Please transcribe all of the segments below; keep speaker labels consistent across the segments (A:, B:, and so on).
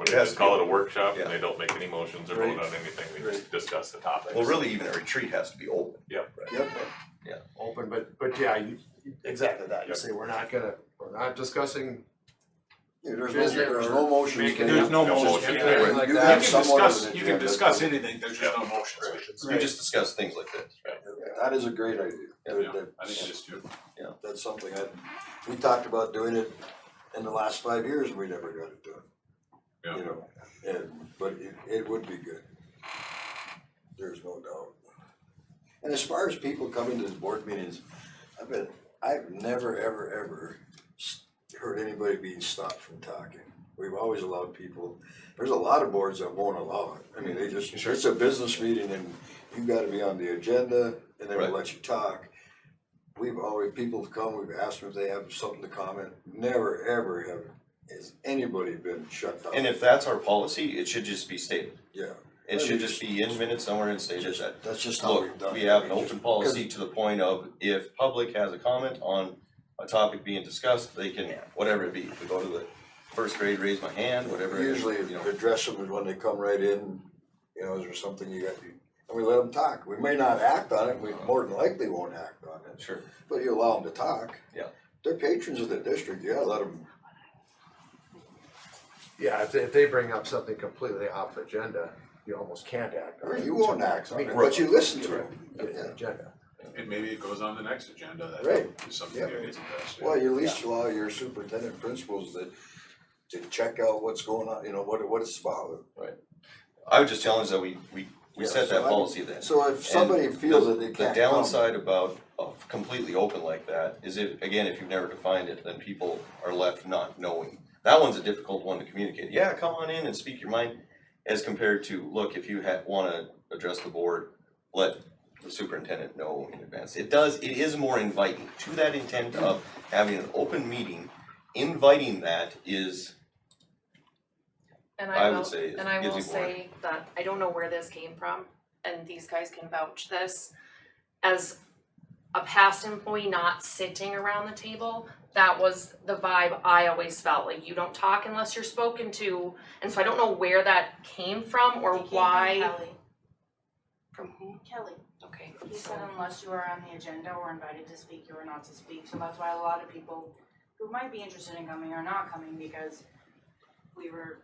A: It has
B: just
A: to
B: call it
A: be-
B: a workshop and
A: yeah.
B: they don't make any motions or
C: Right.
B: vote on anything, we just discuss the topics.
A: Well, really, even a retreat has to be open.
C: Yep.
A: Yeah.
C: Open, but but yeah, you exactly that, you
B: Yep.
C: say we're not gonna, we're not discussing.
D: Yeah, there's no,
C: business or
D: there's no motions.
C: making-
E: There's no
B: No
E: motion.
B: motion.
E: You
D: Yeah,
E: can
D: like
E: you
D: that,
E: can
D: someone on the
E: discuss, you can
D: agenda.
E: discuss anything, there's just no motions.
A: We just discuss things like this.
D: That is a great idea.
A: Yeah,
D: There-
B: Yeah,
D: there-
B: I think it is too.
D: That's something I, we talked about doing it in the last five years and we never got it done.
B: Yeah.
D: You know, and, but it, it would be good. There's no doubt. And as far as people coming to the board meetings, I've been, I've never, ever, ever s- heard anybody being stopped from talking. We've always allowed people, there's a lot of boards that won't allow it. I mean, they just, it's a business meeting and you gotta be on the agenda and they will
A: Right.
D: let you talk. We've always, people have come, we've asked them if they have something to comment, never, ever have, has anybody been shut down.
A: And if that's our policy, it should just be stated.
D: Yeah.
A: It should just be in minutes somewhere and stated that,
D: That's just how we've done
A: look,
D: it.
A: we have an
D: just-
A: open policy to the point of if public has a comment on a topic being discussed, they can, whatever it be, if we go to the first grade, raise my hand, whatever. it is,
D: Usually
A: you know.
D: address them when they come right in, you know, is there something you got, and we let them talk. We may not act on it, we
A: Uh-huh.
D: more than likely won't act on it,
A: Sure,
D: but you allow them to talk.
A: Yeah.
D: They're patrons of the district, yeah, let them,
C: Yeah, if they if they bring up something completely off agenda, you almost can't act on
D: or
C: it.
D: you won't act on it,
C: Right.
D: but you listen to them.
C: It's an agenda.
E: And maybe it goes on the next agenda, that
D: Right.
E: is something
D: Yeah.
E: that gets addressed. yeah.
D: Well, you at least allow your superintendent principals that, to check out what's going on, you know, what, what it's about.
A: I would just challenge that we, we, we
D: Yeah,
A: set
D: so
A: that
D: I-
A: policy then.
D: So if somebody
A: And
D: feels
A: the-
D: that they can't come.
A: The downside about of completely open like that is if, again, if you've never defined it, then people are left not knowing. That one's a difficult one to communicate. Yeah, come on in and speak your mind as compared to, look, if you ha- wanna address the board, let the superintendent know in advance. It does, it is more inviting to that intent of having an open meeting. Inviting that is,
F: And
A: I
F: I
A: would
F: will,
A: say it
F: and I
A: gives
F: will
A: you more.
F: say that I don't know where this came from, and these guys can vouch this. As a past employee not sitting around the table, that was the vibe I always felt, like you don't talk unless you're spoken to. And so I don't know where that came from or
G: It came from
F: why.
G: Kelly.
F: From who?
G: Kelly,
F: Okay.
G: he said unless you are on the agenda or invited to speak, you are not to speak, so that's why a lot of people who might be interested in coming are not coming because we were,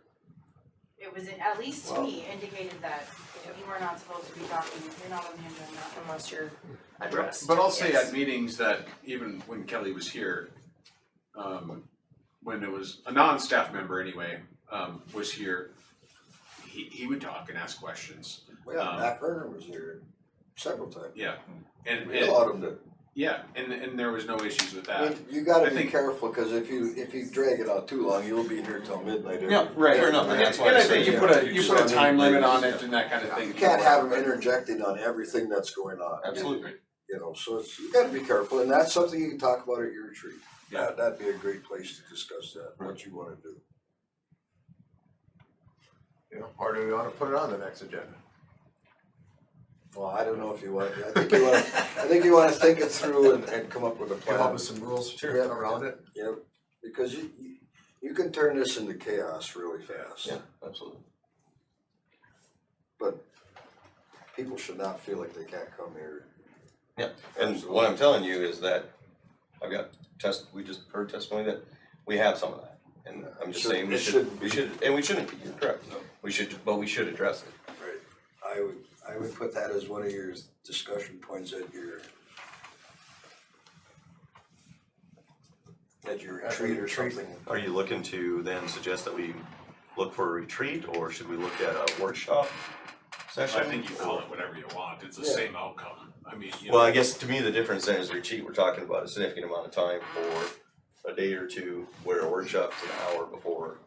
G: it was, at least to me, indicated that you were not supposed to be talking, if you're not on the agenda.
F: Unless you're addressed.
E: But I'll say
F: yes.
E: at meetings that even when Kelly was here, um, when it was a non-staff member anyway, um, was here, he, he would talk and ask questions,
D: Yeah,
E: Um,
D: Matt Vernon was here several times.
E: yeah. And,
D: We
E: and-
D: allowed him to
E: yeah, and, and there was no issues with
D: I
E: that.
D: mean, you gotta
E: I
D: be
E: think-
D: careful, cause if you, if you drag it out too long, you'll be here till midnight every.
E: Yeah, right.
A: Fair enough, and that's why I
E: I
A: say
E: think you
A: you
E: put
A: have
E: a,
A: to
E: you
A: do
E: put a
A: something
E: time limit on
A: like-
E: it and that kind of thing.
D: You can't have them interjecting on everything that's going on.
A: absolutely.
D: You know, so it's, you gotta be careful, and that's something you can talk about at your retreat.
E: Yeah.
D: That, that'd be a great place to discuss that, what you wanna do.
C: You know, or do we wanna put it on the next agenda?
D: Well, I don't know if you want, I think you wanna, I think you wanna think it through and, and come up with a plan.
C: Come up with some rules
D: Sure.
C: around it?
D: Yep, because you, you, you can turn this into chaos really fast.
A: Yeah, absolutely.
D: But people should not feel like they can't come here.
A: Yeah, and what I'm telling you is that I've got test, we just heard testimony that we have some of that. And I'm just
D: Should-
A: saying we
D: it
A: should,
D: shouldn't
A: we should, and we shouldn't be, you're correct. We should, but we should address it.
D: Right. I would, I would put that as one of your discussion points at your at your
C: At the
D: retreat or
C: retreat.
D: something.
A: Are you looking to then suggest that we look for a retreat or should we look at a workshop session?
E: I think you call it whatever you want, it's the
D: Yeah.
E: same outcome, I mean, you know.
A: Well, I guess to me, the difference then is retreat, we're talking about a significant amount of time for a day or two, where a workshop's an hour before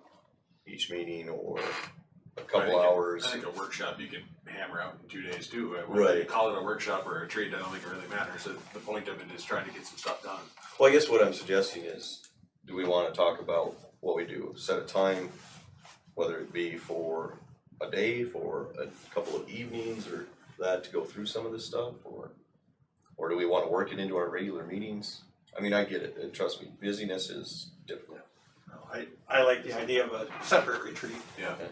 A: each meeting or a
E: I
A: couple
E: think a-
A: hours.
E: I think a workshop you can hammer out in two days too, Uh, whether
A: Right.
E: you call it a workshop or a retreat, I don't think it really matters, the, the point of it is trying to get some stuff done.
A: Well, I guess what I'm suggesting is, do we wanna talk about what we do, set a time, whether it be for a day, for a couple of evenings or that to go through some of this stuff, or? Or do we wanna work it into our regular meetings? I mean, I get it, and trust me, busyness is difficult.
H: No, I, I like the idea of a separate retreat.
E: Yeah.